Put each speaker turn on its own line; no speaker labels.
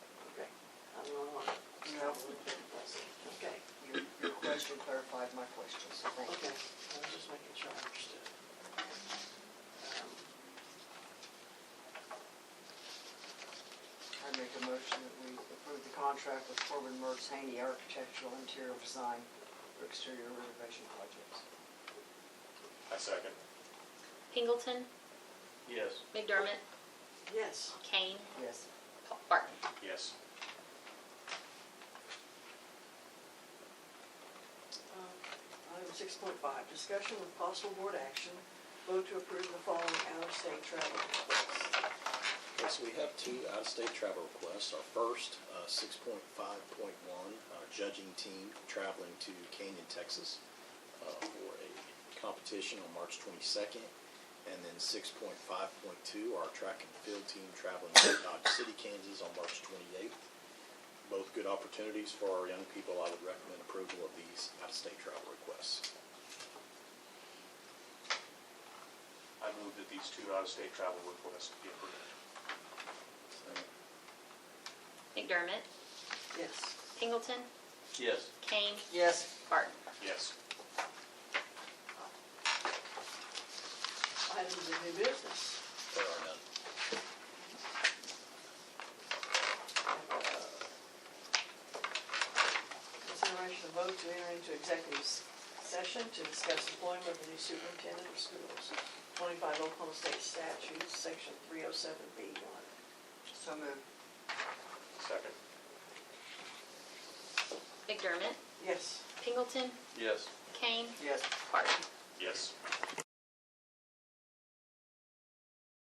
Yes, thank you.
Okay, I was just making sure I understood. Um, I make a motion that we approve the contract with Corbin Mertz Haney Architectural Interior Design for exterior renovation projects.
I second.
Pingleton,
Yes.
McDermott,
Yes.
Kane,
Yes.
Pa- Barton.
Yes.
um, Item six point five, discussion with possible board action, vote to approve the following out-of-state travel requests.
Okay, so we have two out-of-state travel requests. Our first, uh, six point five point one, uh, judging team traveling to Canyon, Texas uh, for a competition on March twenty-second. And then six point five point two, our track and field team traveling to Dodge City, Kansas on March twenty-eighth. Both good opportunities for our young people. I would recommend approval of these out-of-state travel requests.
I move that these two out-of-state travel requests be approved.
McDermott,
Yes.
Pingleton,
Yes.
Kane,
Yes.
Barton.
Yes.
Items of new business.
There are none.
Consideration of vote to enter into executive s- session to discuss employment of the new superintendent of schools, 25 Oklahoma State Statute, Section 307B1. So moved.
Second.
McDermott,
Yes.
Pingleton,
Yes.
Kane,
Yes.
Barton.
Yes.